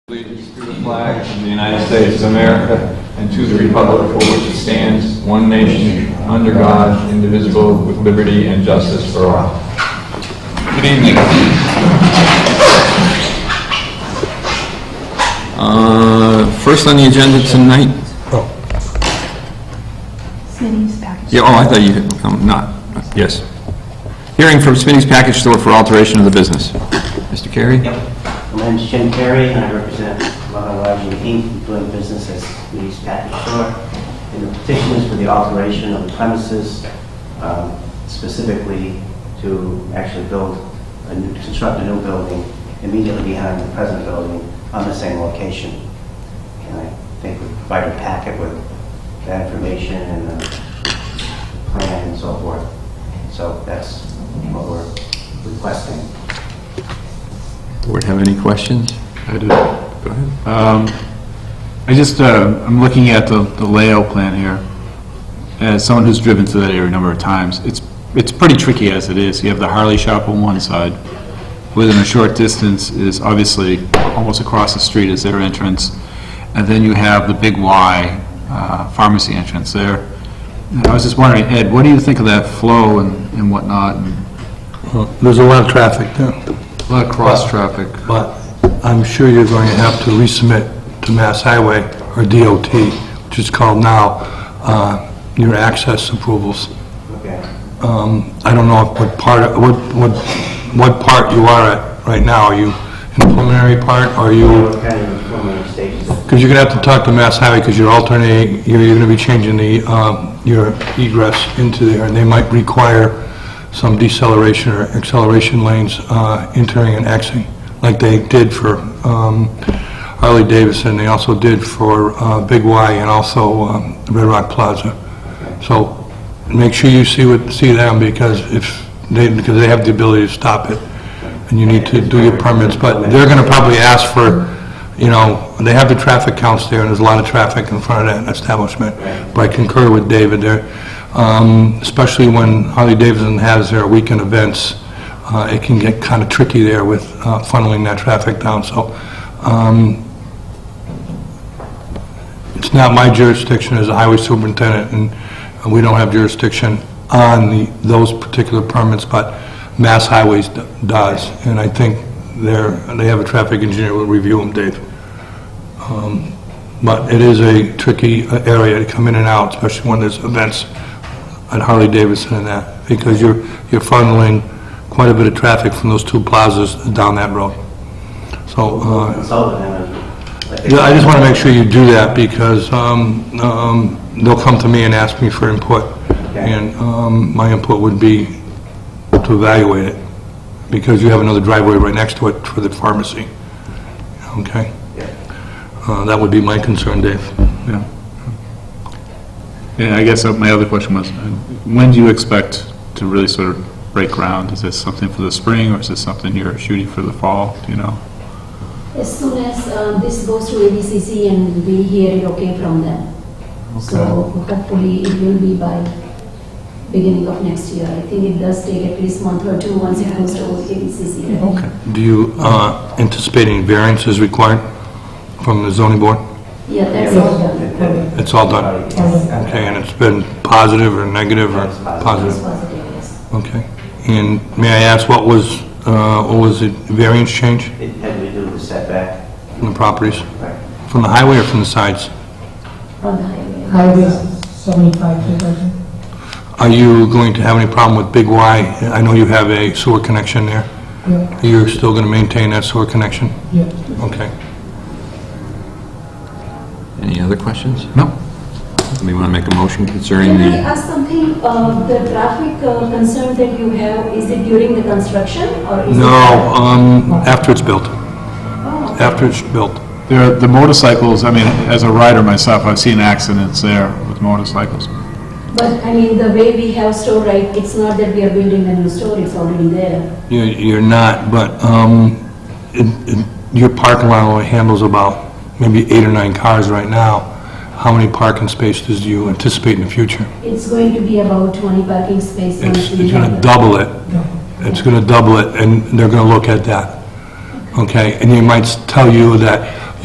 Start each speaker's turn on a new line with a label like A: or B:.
A: Allegiance to the flag of the United States of America and to the republic for which it stands, one nation, under God, indivisible, with liberty and justice for all. Good evening. Uh, First on the agenda tonight,
B: Smitty's package.
A: yeah, oh, I thought you, um, not, yes. Hearing from Smitty's Package Store for alteration of the business. Mr. Carey?
C: Yep. My name's Jim Perry, and I represent Lana Lodging Inc., doing business as Lee's Package Store. And the petition is for the alteration of the premises, um, specifically to actually build, a new- construct a new building immediately behind the present building on the same location. And I think we provided a packet with that information and the plan and so forth. So that's what we're requesting.
A: Board have any questions?
D: I do.
A: Go ahead.
D: Um, I just, uh, I'm looking at the the layout plan here. As someone who's driven through that area a number of times, it's, it's pretty tricky as it is. You have the Harley shop on one side. Within a short distance is obviously, almost across the street is their entrance. And then you have the big Y uh, pharmacy entrance there. And I was just wondering, Ed, what do you think of that flow and and whatnot? and
E: There's a lot of traffic there,
D: A lot of cross-traffic.
E: but I'm sure you're going to have to resubmit to Mass Highway or DOT, which is called now, uh, your access approvals.
C: Okay.
E: Um, I don't know what part, what, what, what part you are at right now. Are you in the preliminary part, or are
C: We
E: you,
C: were kind of in preliminary stages.
E: because you're going to have to talk to Mass Highway, because you're alternating, you're going to be changing the, um, your egress into there, and they might require some deceleration or acceleration lanes uh, entering and exiting, like they did for um, Harley Davidson, they also did for uh, Big Y and also um, Red Rock Plaza. So make sure you see what, see them, because if, they, because they have the ability to stop it, and you need to do your permits, but they're gonna probably ask for, you know, they have the traffic counts there, and there's a lot of traffic in front of that establishment. But I concur with David there, um, especially when Harley Davidson has their weekend events, uh, it can get kinda tricky there with uh, funneling that traffic down, so, um, it's not my jurisdiction as a highway superintendent, and we don't have jurisdiction on the, those particular permits, but Mass Highways d- does, and I think they're, they have a traffic engineer who will review them, Dave. Um, But it is a tricky uh, area to come in and out, especially when there's events at Harley-Davidson and that, because you're, you're funneling quite a bit of traffic from those two plazas down that road. So, uh,
C: Consulted them.
E: yeah, I just want to make sure you do that, because um, um, they'll come to me and ask me for input, and um, my input would be to evaluate it, because you have another driveway right next to it for the pharmacy, okay?
C: Yeah.
E: Uh, That would be my concern, Dave.
D: Yeah. Yeah, I guess uh, my other question was, uh, when do you expect to really sort of break ground? Is this something for the spring, or is this something you're shooting for the fall, do you know?
F: As soon as uh, this goes to ABCC and we hear it okay from them. So hopefully it will be by beginning of next year. I think it does take at least month or two once it goes to ABCC. right?
E: Do you uh, anticipate any variances required from the zoning board?
F: Yeah, that's all done.
E: It's all
C: Uh,
E: done, okay, and it's been positive or negative or positive?
F: It's positive, yes.
E: Okay. And may I ask, what was, uh, what was the variance change
C: It had to do with setback.
E: in the properties?
C: Right.
E: From the highway or from the sides?
F: On the highway.
G: Highway 75, 2000.
E: Are you going to have any problem with Big Y? I know you have a sewer connection there.
G: Yeah,
E: You're still going to maintain that sewer connection?
G: yeah.
E: Okay.
A: Any other questions?
D: No.
A: Somebody want to make a motion concerning
F: Can I
A: the,
F: ask something? Uh, The traffic uh, concern that you have, is it during the construction or is it?
E: No, um, after it's built,
F: Oh,
E: after it's built.
D: There, are- the motorcycles, I mean, as a rider myself, I've seen accidents there with motorcycles.
F: But I mean, the way we have store, right, it's not that we are building a new store, it's already there.
E: You- You're not, but um, it- it- your parking lot only handles about maybe eight or nine cars right now. How many parking spaces do you anticipate in the future?
F: It's going to be about 20 parking spaces.
E: It's,
F: We
E: it's gonna
F: have-
E: double it. It's gonna double it, and they're gonna look at that. Okay, and they might s- tell you that,